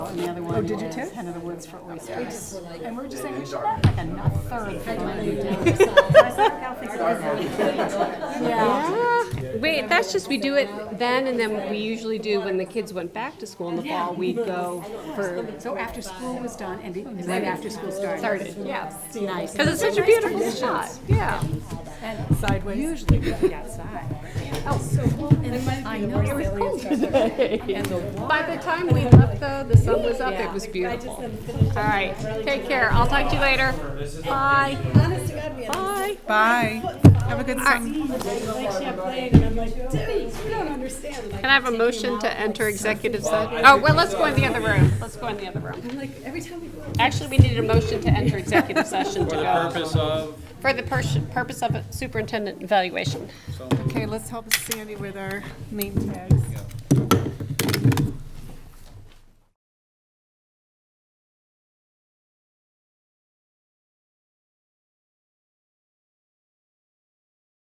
the other one did you is too? Hen of the Woods for oysters. And we we're just saying, we These should are- have like a not third for when we do. I was like, I'll fix it myself. Yeah. Yeah. Wait, that's just, we do it then, and then we usually do when the kids went back to school in the fall, we go for, So after school was done and be- right after school started. started, yeah. Nice. Because it's such a beautiful spot, yeah. And sideways. Usually we'd be outside. Oh, so I know it was cold. And the wall. By the time we left though, the sun was up, it was beautiful. All right, take care, I'll talk to you later. Bye. Bye. Bye. Have a good All right, can I have a motion to enter executive session? Oh, well, let's go in the other room, let's go in the other room. Like every time we go. Actually, we needed a motion to enter executive session to For the go. purpose of, For the pers- purpose of a superintendent evaluation. Okay, let's help Sandy with our name tags.